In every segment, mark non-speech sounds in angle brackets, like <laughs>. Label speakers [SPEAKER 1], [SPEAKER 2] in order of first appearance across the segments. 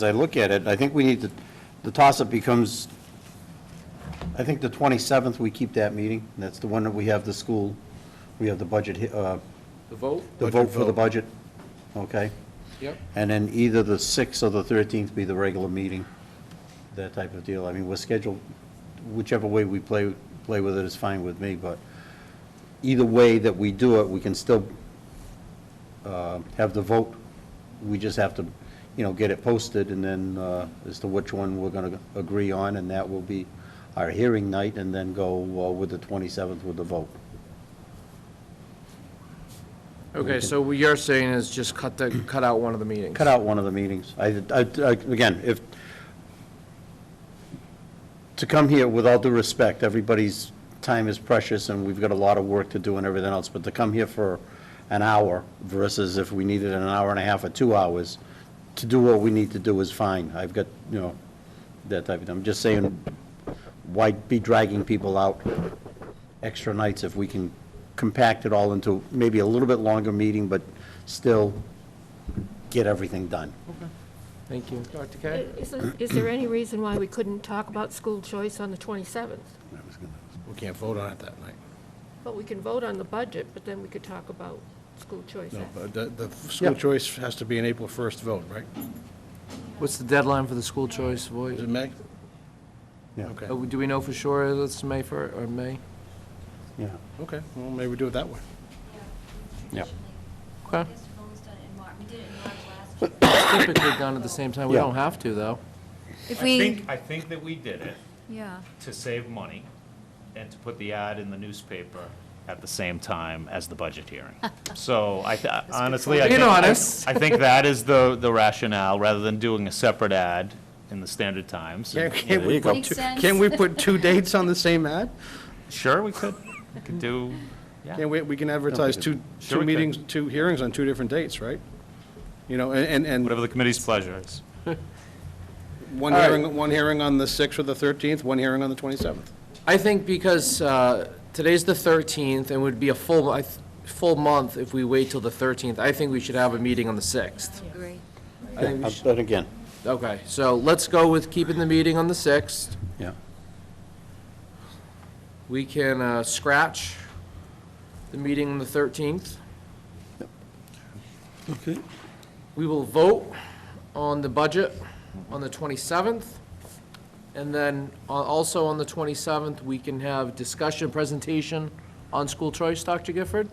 [SPEAKER 1] As I look at it, I think we need to, the toss-up becomes, I think the 27th, we keep that meeting. That's the one that we have the school, we have the budget, he- uh,
[SPEAKER 2] The vote?
[SPEAKER 1] the
[SPEAKER 3] Budget
[SPEAKER 1] vote for the
[SPEAKER 3] vote.
[SPEAKER 1] budget, okay?
[SPEAKER 2] Yep.
[SPEAKER 1] And then either the 6th or the 13th be the regular meeting, that type of deal. I mean, we're scheduled, whichever way we play, play with it is fine with me, but either way that we do it, we can still uh, have the vote. We just have to, you know, get it posted and then uh, as to which one we're going to agree on, and that will be our hearing night, and then go uh, with the 27th with the vote.
[SPEAKER 2] Okay, so what you're saying is just cut the, cut out one of the meetings?
[SPEAKER 1] Cut out one of the meetings. I, I- I- again, if, to come here, with all due respect, everybody's time is precious, and we've got a lot of work to do and everything else, but to come here for an hour versus if we needed an hour and a half or two hours, to do what we need to do is fine. I've got, you know, that type of, I'm just saying, why be dragging people out extra nights if we can compact it all into maybe a little bit longer meeting, but still get everything done.
[SPEAKER 2] Thank you. Dr. K?
[SPEAKER 4] Isn't, is there any reason why we couldn't talk about school choice on the 27th?
[SPEAKER 3] We can't vote on it that night.
[SPEAKER 4] But we can vote on the budget, but then we could talk about school choice.
[SPEAKER 3] No,
[SPEAKER 4] after.
[SPEAKER 3] but the, the school
[SPEAKER 1] Yeah.
[SPEAKER 3] choice has to be an April 1st vote, right?
[SPEAKER 2] What's the deadline for the school choice vote?
[SPEAKER 3] Is it May?
[SPEAKER 1] Yeah.
[SPEAKER 3] Okay,
[SPEAKER 2] Uh, Do we know for sure it's May 1st or May?
[SPEAKER 1] Yeah,
[SPEAKER 3] okay, well, maybe we do it that way.
[SPEAKER 1] Yeah.
[SPEAKER 2] Okay.
[SPEAKER 5] Traditionally, we've always done it in March. We did it in March last year.
[SPEAKER 2] <coughs> Typically done at the same time. We
[SPEAKER 1] Yeah.
[SPEAKER 2] don't have to, though.
[SPEAKER 5] If
[SPEAKER 6] I
[SPEAKER 5] we,
[SPEAKER 6] think, I think that we did it
[SPEAKER 5] yeah.
[SPEAKER 6] to save money and to put the ad in the newspaper at the same time as the budget
[SPEAKER 5] <laughs>
[SPEAKER 6] hearing. So I, th- honestly, I
[SPEAKER 2] Being
[SPEAKER 6] think, I
[SPEAKER 2] honest.
[SPEAKER 6] I think that is the, the rationale, rather than doing a separate ad in the Standard Times.
[SPEAKER 3] Can-
[SPEAKER 6] And, you
[SPEAKER 3] Can
[SPEAKER 6] know,
[SPEAKER 3] we,
[SPEAKER 5] Makes sense.
[SPEAKER 3] can we put two dates on the same ad? <laughs>
[SPEAKER 6] Sure, we could, we could do, yeah.
[SPEAKER 3] Can we, we can advertise two, two
[SPEAKER 6] Sure we could.
[SPEAKER 3] meetings, two hearings on two different dates, right? You know, and, and- and
[SPEAKER 6] Whatever the committee's pleasure is.
[SPEAKER 3] one
[SPEAKER 2] All right.
[SPEAKER 3] hearing, one hearing on the 6th or the 13th, one hearing on the 27th.
[SPEAKER 2] I think because uh, today's the 13th, and would be a full, I th- full month if we wait till the 13th, I think we should have a meeting on the 6th.
[SPEAKER 5] Agree.
[SPEAKER 2] I think we should-
[SPEAKER 1] but again,
[SPEAKER 2] Okay, so let's go with keeping the meeting on the 6th.
[SPEAKER 1] yeah.
[SPEAKER 2] We can uh, scratch the meeting on the 13th.
[SPEAKER 1] Okay.
[SPEAKER 2] We will vote on the budget on the 27th. And then uh, also on the 27th, we can have discussion, presentation on school choice, Dr. Gifford.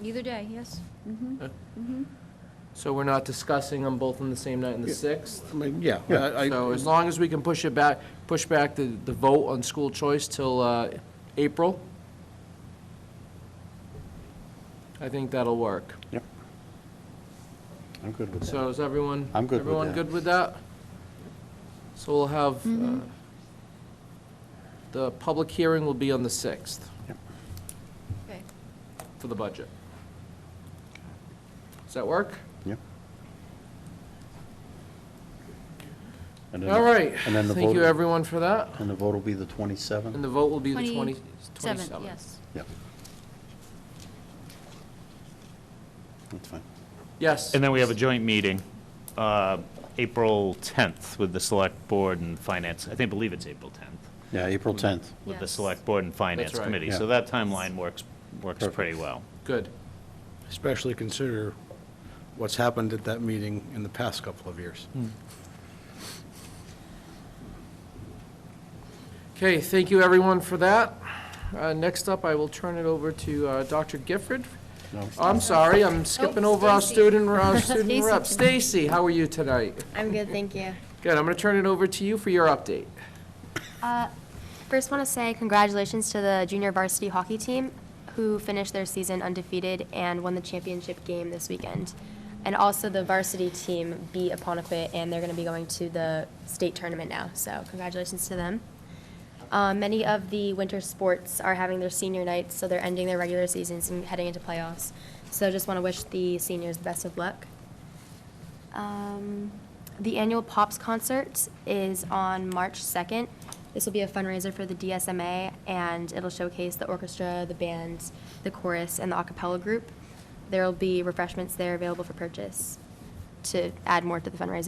[SPEAKER 5] Either day, yes.
[SPEAKER 2] So we're not discussing them both on the same night on the 6th.
[SPEAKER 3] I mean, yeah. I- I-
[SPEAKER 2] So as long as we can push it back, push back the, the vote on school choice till uh, April, I think that'll work.
[SPEAKER 1] Yep. I'm good with that.
[SPEAKER 2] So is everyone?
[SPEAKER 1] I'm good with
[SPEAKER 2] Everyone
[SPEAKER 1] that.
[SPEAKER 2] good with that? So we'll have, uh,
[SPEAKER 5] Mm-hmm.
[SPEAKER 2] the public hearing will be on the 6th
[SPEAKER 5] Okay.
[SPEAKER 2] for the budget. Does that work?
[SPEAKER 1] Yep. And then-
[SPEAKER 2] All right.
[SPEAKER 1] And then the
[SPEAKER 2] Thank you,
[SPEAKER 1] vote,
[SPEAKER 2] everyone, for that.
[SPEAKER 1] and the vote will be the
[SPEAKER 2] And
[SPEAKER 1] 27th?
[SPEAKER 2] the vote will be the 20
[SPEAKER 5] Seventh,
[SPEAKER 2] 27th.
[SPEAKER 5] yes.
[SPEAKER 1] Yep. That's fine.
[SPEAKER 2] Yes.
[SPEAKER 6] And then we have a joint meeting, uh, April 10th with the Select Board and Finance, I think, believe it's April 10th.
[SPEAKER 1] Yeah, April 10th.
[SPEAKER 6] with the
[SPEAKER 5] Yes.
[SPEAKER 6] Select Board and Finance
[SPEAKER 2] That's right.
[SPEAKER 6] Committee.
[SPEAKER 1] Yeah.
[SPEAKER 6] So that timeline works, works
[SPEAKER 1] Perfect.
[SPEAKER 6] pretty well.
[SPEAKER 2] Good.
[SPEAKER 3] Especially consider what's happened at that meeting in the past couple of years.
[SPEAKER 2] Okay, thank you, everyone, for that. Uh, Next up, I will turn it over to uh, Dr. Gifford.
[SPEAKER 1] No.
[SPEAKER 2] I'm sorry, I'm skipping over our
[SPEAKER 5] Oh, Stacy.
[SPEAKER 2] student, our student
[SPEAKER 5] <laughs> Stacy
[SPEAKER 2] rep.
[SPEAKER 5] tonight.
[SPEAKER 2] Stacy, how are you tonight?
[SPEAKER 7] I'm good, thank you.
[SPEAKER 2] Good, I'm going to turn it over to you for your update.
[SPEAKER 7] Uh, First, want to say congratulations to the junior varsity hockey team, who finished their season undefeated and won the championship game this weekend. And also, the varsity team beat Aponequid, and they're going to be going to the state tournament now, so congratulations to them. Uh, Many of the winter sports are having their senior nights, so they're ending their regular seasons and heading into playoffs. So just want to wish the seniors the best of luck. Um, the annual Pops concert is on March 2nd. This will be a fundraiser for the DSMA, and it'll showcase the orchestra, the band, the chorus, and the a cappella group. There will be refreshments there available for purchase. to add more to the fundraising